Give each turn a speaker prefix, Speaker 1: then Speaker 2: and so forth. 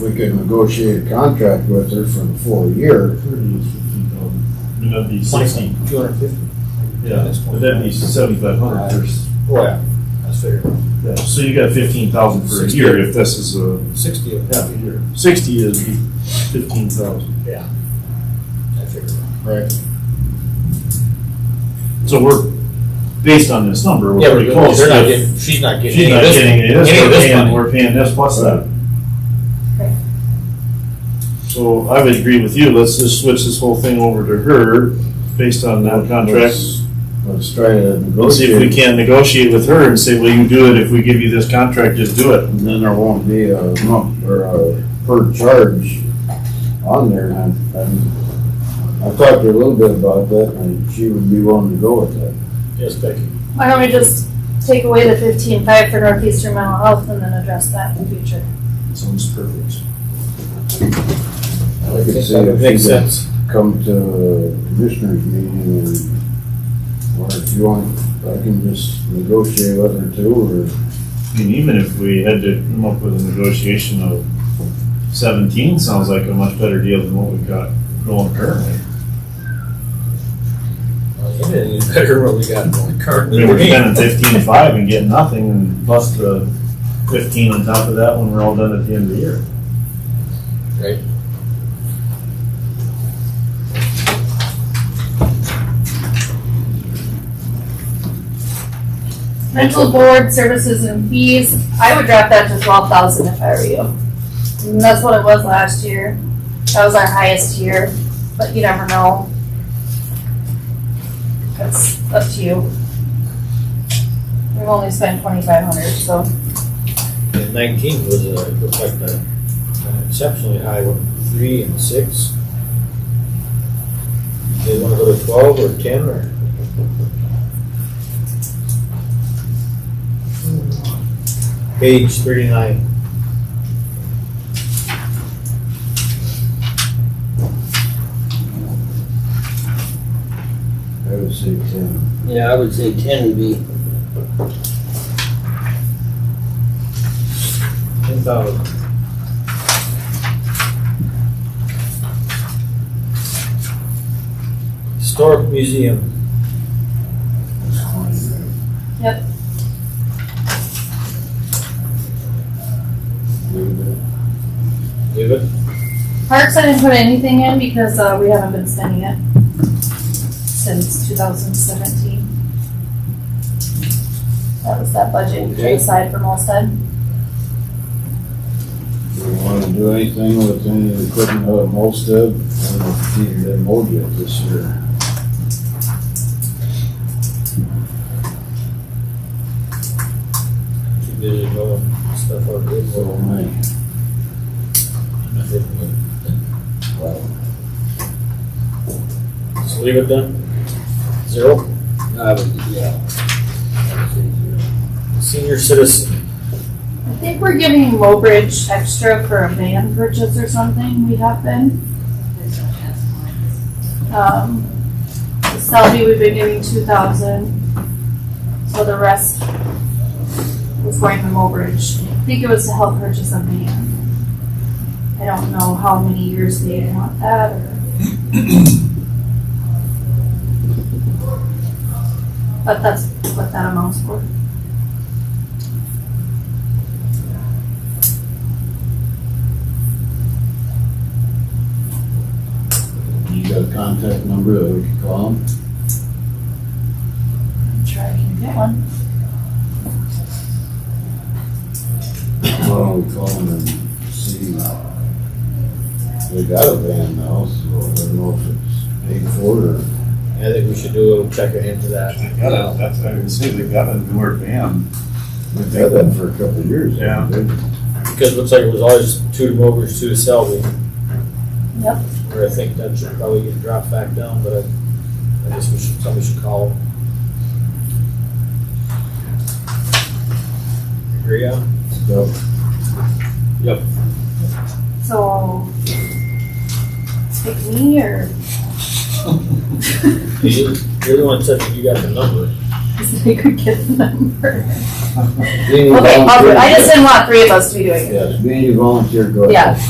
Speaker 1: we could negotiate a contract with her for the full year,
Speaker 2: And that'd be sixty,
Speaker 3: Two hundred fifty.
Speaker 2: yeah, but that'd be seventy-five hundred first.
Speaker 3: Well, yeah, that's fair.
Speaker 2: Yeah, so you got fifteen thousand for a year if this is a,
Speaker 3: Sixty of half a year.
Speaker 2: sixty is fifteen thousand.
Speaker 3: Yeah. I figured.
Speaker 1: right?
Speaker 2: So we're, based on this number, we're
Speaker 3: Yeah,
Speaker 2: pretty close.
Speaker 3: they're not
Speaker 2: If
Speaker 3: getting, she's not getting
Speaker 2: She's
Speaker 3: any
Speaker 2: not
Speaker 3: of
Speaker 2: getting any of
Speaker 3: this,
Speaker 2: this,
Speaker 3: any
Speaker 2: we're
Speaker 3: of this
Speaker 2: paying,
Speaker 3: money.
Speaker 2: we're paying this plus that.
Speaker 4: Right.
Speaker 2: So I would agree with you, let's just switch this whole thing over to her based on that contract.
Speaker 1: Let's- Let's try to
Speaker 2: Let's see if we
Speaker 1: negotiate,
Speaker 2: can negotiate with her and say, well, you do it, if we give you this contract, just do it.
Speaker 1: and then there won't be a month or a per charge on there, and I, I'm- I talked to her a little bit about that, and she would be willing to go with that.
Speaker 3: Yes, Becky.
Speaker 4: Why don't we just take away the fifteen five for Northeastern Mental Health and then address that in the future?
Speaker 2: Sounds perfect.
Speaker 1: I could see if she could come to commissioners meeting and, or if you want, I can just negotiate with her too,
Speaker 2: I mean, even if we had to come up with a negotiation of seventeen, sounds like a much better deal than what we've got going currently.
Speaker 3: Well, you didn't even better what we got going
Speaker 2: I
Speaker 3: currently.
Speaker 2: mean, we're spending fifteen-five and getting nothing, and plus the fifteen on top of that when we're all done at the end of the year.
Speaker 3: Right.
Speaker 4: Mental board services and fees, I would drop that to twelve thousand if I were you. And that's what it was last year. That was our highest year, but you never know. That's up to you. We've only spent twenty-five hundred, so.
Speaker 3: And nineteen was, uh, looked like the an exceptionally high one, three and six. They wanna go to twelve or ten or? Page thirty-nine.
Speaker 1: or I would say ten.
Speaker 5: Yeah, I would say ten would be,
Speaker 3: Ten thousand. Historic Museum,
Speaker 4: Yep.
Speaker 3: leave it.
Speaker 4: Parks, I didn't put anything in because, uh, we haven't been spending it since two thousand seventeen. That was that budget we put aside for Molstead.
Speaker 1: Do you want to do anything with any of the equipment out at Molstead? I don't know if you even been mowed yet this year.
Speaker 3: Too busy mowing stuff out there.
Speaker 1: So, my, well,
Speaker 3: Just leave it then? Zero.
Speaker 5: I would, yeah. I would say zero.
Speaker 3: Senior citizen,
Speaker 4: I think we're giving Lowbridge extra for a van purchase or something, we have been. Um, Selby, we've been giving two thousand, so the rest was going to Lowbridge. I think it was to help purchase a van. I don't know how many years they want that, or. But that's what that amounts for.
Speaker 1: you got a contact number that we can call them?
Speaker 4: I'm sure I can get one.
Speaker 1: Why don't we call them and see? They got a van now, so I don't know if it's paid for or.
Speaker 3: I think we should do a little check in for that.
Speaker 2: They got a, that's, I would say they got a newer van.
Speaker 1: They've had that for a couple of years.
Speaker 2: Yeah.
Speaker 1: haven't they?
Speaker 3: Because it looks like it was always two to Mowbridge, two to Selby.
Speaker 4: Yep.
Speaker 3: Where I think that should probably get dropped back down, but I, I guess we should, somebody should call. them. Agree on?
Speaker 1: So,
Speaker 4: So, pick me or
Speaker 3: You- You're the one said that you got the number.
Speaker 4: is they could get the number?
Speaker 1: Being
Speaker 4: Okay,
Speaker 1: volunteer-
Speaker 4: I'll- I just didn't want three of us to be doing it.
Speaker 1: Yes, being a volunteer, go ahead.
Speaker 4: Yeah.